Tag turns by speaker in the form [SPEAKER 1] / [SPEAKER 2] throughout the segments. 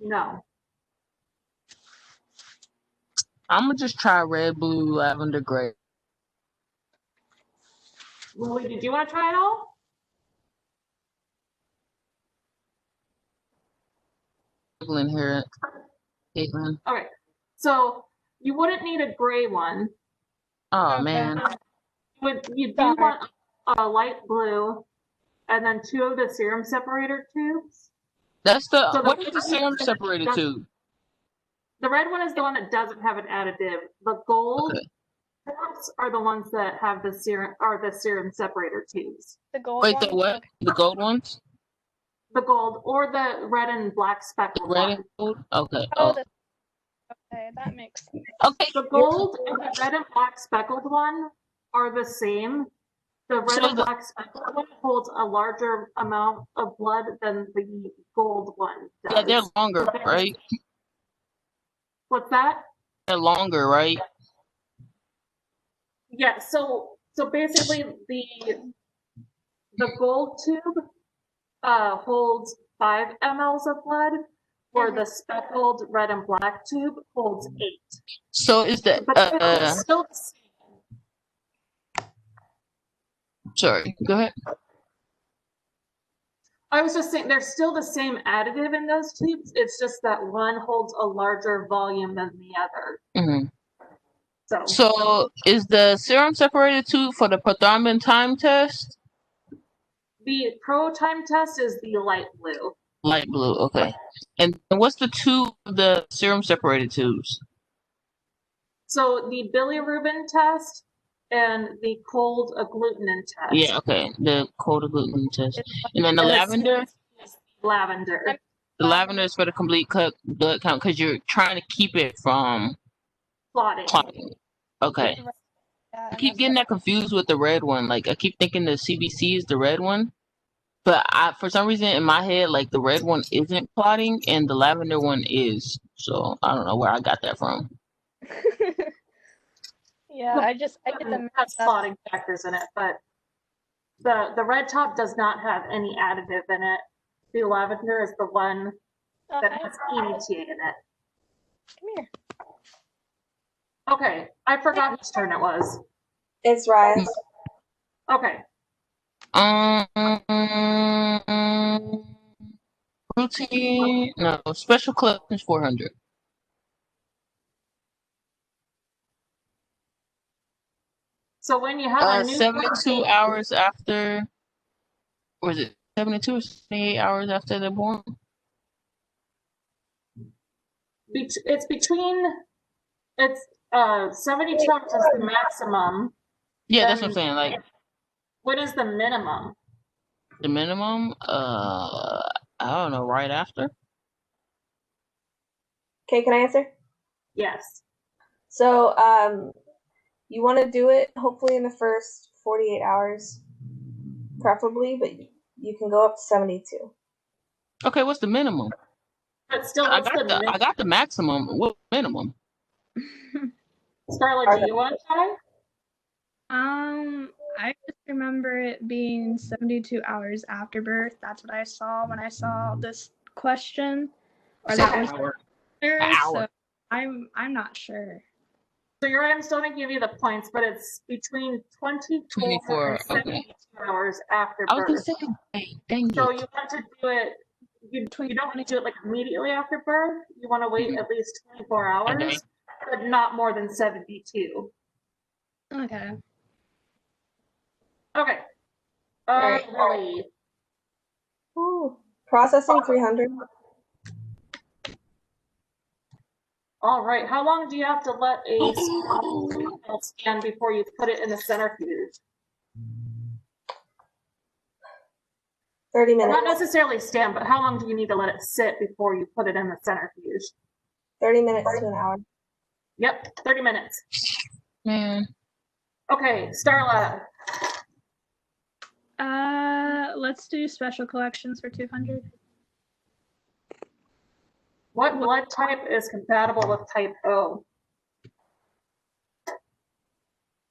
[SPEAKER 1] No.
[SPEAKER 2] I'm gonna just try red, blue, lavender, gray.
[SPEAKER 1] Lily, did you want to try it all?
[SPEAKER 2] Caitlin here. Caitlin.
[SPEAKER 1] All right. So you wouldn't need a gray one.
[SPEAKER 2] Oh man.
[SPEAKER 1] Would you do
[SPEAKER 3] Got it.
[SPEAKER 1] want a light blue and then two of the serum separator tubes?
[SPEAKER 2] That's the
[SPEAKER 1] So the-
[SPEAKER 2] what is the serum separated to?
[SPEAKER 1] The red one is the one that doesn't have an additive. The gold caps are the ones that have the serum are the serum separator tubes.
[SPEAKER 3] The gold
[SPEAKER 2] Wait,
[SPEAKER 3] one.
[SPEAKER 2] the what? The gold ones?
[SPEAKER 1] The gold or the red and black
[SPEAKER 2] The
[SPEAKER 1] speckled
[SPEAKER 2] red
[SPEAKER 1] one.
[SPEAKER 2] and gold? Okay.
[SPEAKER 3] Oh,
[SPEAKER 2] Oh,
[SPEAKER 3] the, okay, that makes sense.
[SPEAKER 2] okay.
[SPEAKER 1] The gold and the red and black speckled one are the same. The red
[SPEAKER 2] So
[SPEAKER 1] and
[SPEAKER 2] the-
[SPEAKER 1] black speckled one holds a larger amount of blood than the gold one
[SPEAKER 2] Yeah, they're
[SPEAKER 1] does.
[SPEAKER 2] longer, right?
[SPEAKER 1] What's that?
[SPEAKER 2] They're longer, right?
[SPEAKER 1] Yeah, so, so basically the, the gold tube, uh, holds five mLs of blood, where
[SPEAKER 2] Mm-hmm.
[SPEAKER 1] the speckled red and black tube holds eight.
[SPEAKER 2] So is the
[SPEAKER 1] But
[SPEAKER 2] uh, uh
[SPEAKER 1] it's still the same.
[SPEAKER 2] sorry, go ahead.
[SPEAKER 1] I was just saying, they're still the same additive in those tubes. It's just that one holds a larger volume than the other.
[SPEAKER 2] hmm
[SPEAKER 1] So
[SPEAKER 2] So is the serum separated to for the prothrombin time test?
[SPEAKER 1] the pro time test is the light blue.
[SPEAKER 2] Light blue, okay. And what's the two of the serum separated tubes?
[SPEAKER 1] So the bilirubin test and the cold agglutinin test.
[SPEAKER 2] Yeah, okay. The cold agglutinin test.
[SPEAKER 3] It's like-
[SPEAKER 2] And then the
[SPEAKER 1] And the
[SPEAKER 2] lavender?
[SPEAKER 1] Lavender.
[SPEAKER 2] The lavender is for the complete cut blood count because you're trying to keep it from
[SPEAKER 1] Plotting.
[SPEAKER 2] clotting. Okay.
[SPEAKER 3] yeah,
[SPEAKER 2] I
[SPEAKER 3] and
[SPEAKER 2] keep
[SPEAKER 3] that's
[SPEAKER 2] getting
[SPEAKER 3] what-
[SPEAKER 2] that confused with the red one. Like I keep thinking the CBC is the red one, but I for some reason in my head like the red one isn't plotting and the lavender one is. So I don't know where I got that from.
[SPEAKER 3] Yeah, I just, I get them.
[SPEAKER 1] It Has plotting Mm, factors in it, but the, the red top does not have any additive in it. The lavender is the one
[SPEAKER 3] Uh,
[SPEAKER 1] that
[SPEAKER 3] I-
[SPEAKER 1] has
[SPEAKER 2] E
[SPEAKER 1] EDTA in it.
[SPEAKER 3] Come here.
[SPEAKER 1] Okay, I forgot whose turn it was.
[SPEAKER 4] It's right.
[SPEAKER 1] Okay,
[SPEAKER 2] Um, routine no special collections four hundred.
[SPEAKER 1] so when you have
[SPEAKER 2] Uh,
[SPEAKER 1] a new.
[SPEAKER 2] seventy two hours after. Was it seventy two or seventy eight hours after they're born?
[SPEAKER 1] bet- It's between, it's, uh, seventy-two hours is the maximum.
[SPEAKER 2] Yeah, that's what I'm
[SPEAKER 1] Um,
[SPEAKER 2] saying. Like
[SPEAKER 1] What is the minimum?
[SPEAKER 2] the minimum. Uh, I don't know. Right after.
[SPEAKER 4] Okay, can I answer?
[SPEAKER 1] Yes.
[SPEAKER 4] So, um, you want to do it hopefully in the first 48 hours, preferably, but you can go up to 72.
[SPEAKER 2] Okay, what's the minimum?
[SPEAKER 1] But still,
[SPEAKER 2] I
[SPEAKER 1] what's the
[SPEAKER 2] got the I
[SPEAKER 1] minimum?
[SPEAKER 2] got the maximum. What minimum?
[SPEAKER 1] Scarlett, do you want to try?
[SPEAKER 5] Um, I just remember it being 72 hours after birth. That's what I saw when I saw this question. Or that was
[SPEAKER 2] Hour.
[SPEAKER 5] clear,
[SPEAKER 2] An hour.
[SPEAKER 5] so I'm I'm not sure.
[SPEAKER 1] So your items don't give you the points, but it's between twenty-four
[SPEAKER 2] 24,
[SPEAKER 1] and seventy-two hours after
[SPEAKER 2] I was gonna
[SPEAKER 1] birth.
[SPEAKER 2] say, wait, dang
[SPEAKER 1] So
[SPEAKER 2] it.
[SPEAKER 1] you want to do it, you,
[SPEAKER 5] Between
[SPEAKER 1] you don't want to do it like immediately after birth. You want to wait
[SPEAKER 2] Mhm.
[SPEAKER 1] at least twenty-four
[SPEAKER 2] Okay.
[SPEAKER 1] hours, but not more than seventy-two.
[SPEAKER 5] Okay.
[SPEAKER 1] Okay.
[SPEAKER 4] All
[SPEAKER 1] Uh,
[SPEAKER 4] right.
[SPEAKER 1] Lily,
[SPEAKER 4] Ooh. Processing 300.
[SPEAKER 1] All right, how long do you have to let a spinal scan before you put it in the centrifuge?
[SPEAKER 4] 30
[SPEAKER 1] Not
[SPEAKER 4] minutes.
[SPEAKER 1] necessarily stand, but how long do you need to let it sit before you put it in the centrifuge?
[SPEAKER 4] 30 minutes to an hour.
[SPEAKER 1] Yep, thirty minutes.
[SPEAKER 2] man.
[SPEAKER 1] Okay, Starla,
[SPEAKER 5] Uh, let's do special collections for 200.
[SPEAKER 1] what blood type is compatible with type O?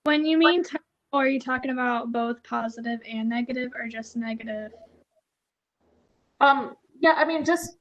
[SPEAKER 5] When you mean type O, are you talking about both positive and negative or just negative?
[SPEAKER 1] Um, yeah, I mean, just